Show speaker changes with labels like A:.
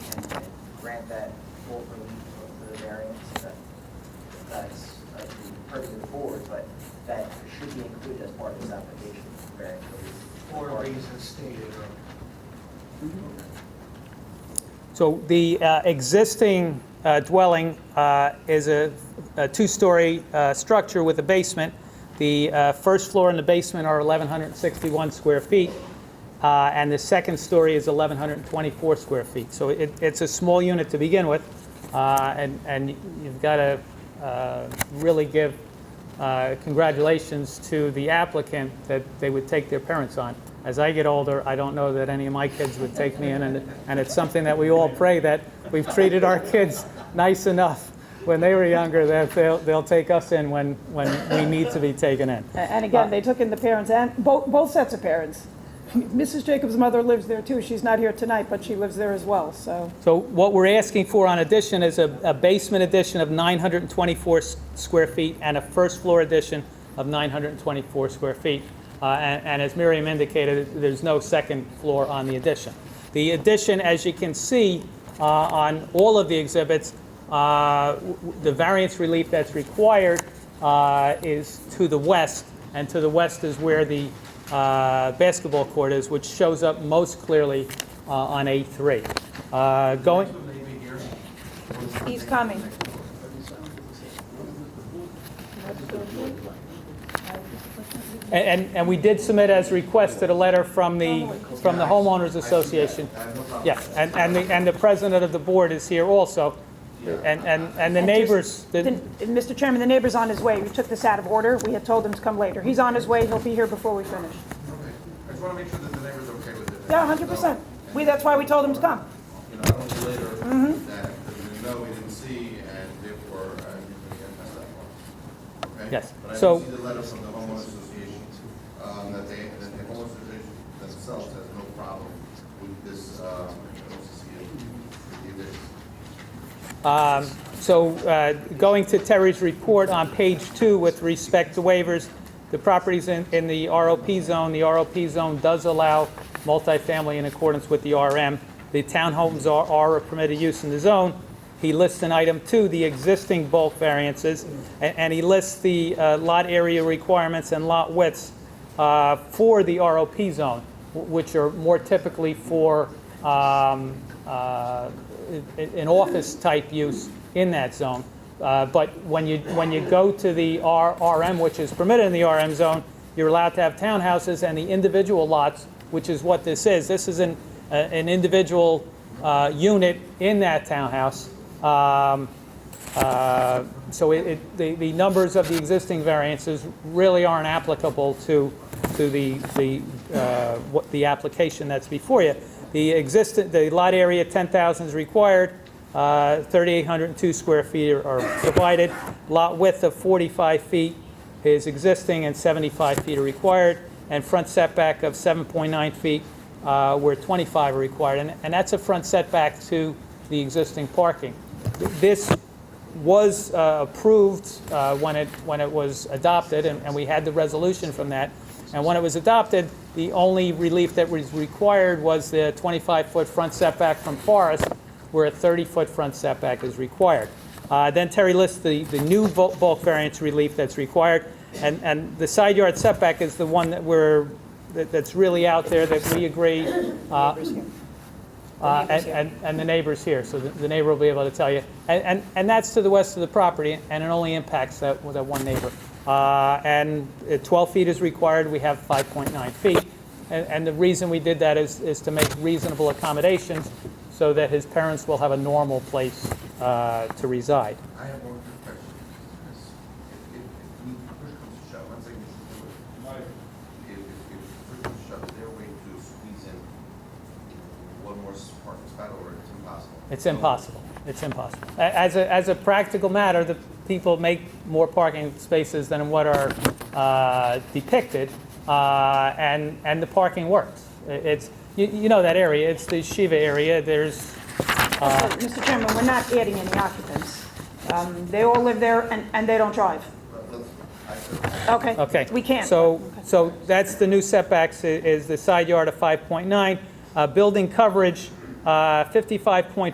A: grant that full relief of the variance, that, that's uh, the purview of the board, but that should be included as part of this application, variance relief.
B: for reasons stated earlier.
C: So the uh, existing uh, dwelling uh, is a a two-story uh, structure with a basement. The uh, first floor and the basement are 1,161 square feet, uh, and the second story is 1,124 square feet. So it- it's a small unit to begin with, uh, and and you've got to really give uh, congratulations to the applicant that they would take their parents on. As I get older, I don't know that any of my kids would take me in, and, and it's something that we all pray that we've treated our kids nice enough when they were younger that they'll, they'll take us in when, when we need to be taken in.
D: A- And again, they took in the parents and, both, both sets of parents. Mrs. Jacobs' mother lives there too. She's not here tonight, but she lives there as well, so.
C: So what we're asking for on addition is a, a basement addition of 924 s- square feet and a first floor addition of 924 square feet. Uh, and, and as Miriam indicated, there's no second floor on the addition. The addition, as you can see uh, on all of the exhibits, uh, w- w- the variance relief that's required uh, is to the west, and to the west is where the uh, basketball court is, which shows up most clearly uh, on A3. Uh, Going,
B: Maybe here.
D: He's coming.
C: and, and- and we did submit as requested a letter from the, from the homeowners association. Yes, and, and the, and the president of the board is here also, and, and, and the neighbors, the-
D: Then- and Mr. Chairman, the neighbor's on his way. We took this out of order. We had told him to come later. He's on his way. He'll be here before we finish.
E: I just want to make sure that the neighbor's okay with it.
D: Yeah, hundred percent. We, Mm-hmm. that's why we told him to come.
E: You know, I don't see later that, there's no, we didn't see, and therefore, uh, we can pass that one. Okay?
C: Yes.
E: But I
C: So-
E: did see the letter from the homeowners association, um, that they, that the homeowners association themselves has no problem with this, uh, with the addition.
C: Um, So uh, going to Terry's report on page two with respect to waivers, the properties in in the ROP zone, the ROP zone does allow multifamily in accordance with the RM. The townhomes are- are a permitted use in the zone. He lists in item two the existing bulk variances, a- and he lists the uh, lot area requirements and lot widths uh, for the ROP zone, w- which are more typically for um, uh, i- an office-type use in that zone. Uh, But when you, when you go to the R- RM, which is permitted in the RM zone, you're allowed to have townhouses and the individual lots, which is what this is. This is an, a- an individual uh, unit in that townhouse. Um, uh, So it- it, the, the numbers of the existing variances really aren't applicable to, to the, the, uh, what, the application that's before you. The existent, the lot area, 10,000 is required, uh, 3,802 square feet are- are provided. Lot width of 45 feet is existing and 75 feet are required, and front setback of 7.9 feet uh, where 25 are required. And- And that's a front setback to the existing parking. This was uh, approved uh, when it, when it was adopted, and and we had the resolution from that. And when it was adopted, the only relief that was required was the 25-foot front setback from Forest, where a 30-foot front setback is required. Uh, Then Terry lists the, the new bulk bulk variance relief that's required, and, and the side yard setback is the one that we're, that- that's really out there that we agree uh, uh, And and- and the neighbor's here, so the- the neighbor will be able to tell you. And- And and that's to the west of the property, and it only impacts that that one neighbor. Uh, And uh, 12 feet is required, we have 5.9 feet. And- And the reason we did that is is to make reasonable accommodations so that his parents will have a normal place uh, to reside.
E: I have one quick question. If, if, if we push comes to shove, one second, Mr. Stewart. If, if, if push comes to shove, is there a way to squeeze in one more s- parking spot or it's impossible?
C: It's impossible. It's impossible. A- As a, as a practical matter, the people make more parking spaces than what are uh, depicted, uh, and, and the parking works. I- It's, you, you know that area, it's the Shiva area, there's,
D: But, Mr. Chairman, we're not adding any occupants. Um, they all live there and, and they don't drive.
E: But let's, I said,
D: Okay?
C: Okay.
D: We can't.
C: So,
D: Okay.
C: so that's the new setbacks, i- is the side yard of 5.9. Uh, Building coverage, uh, 55.5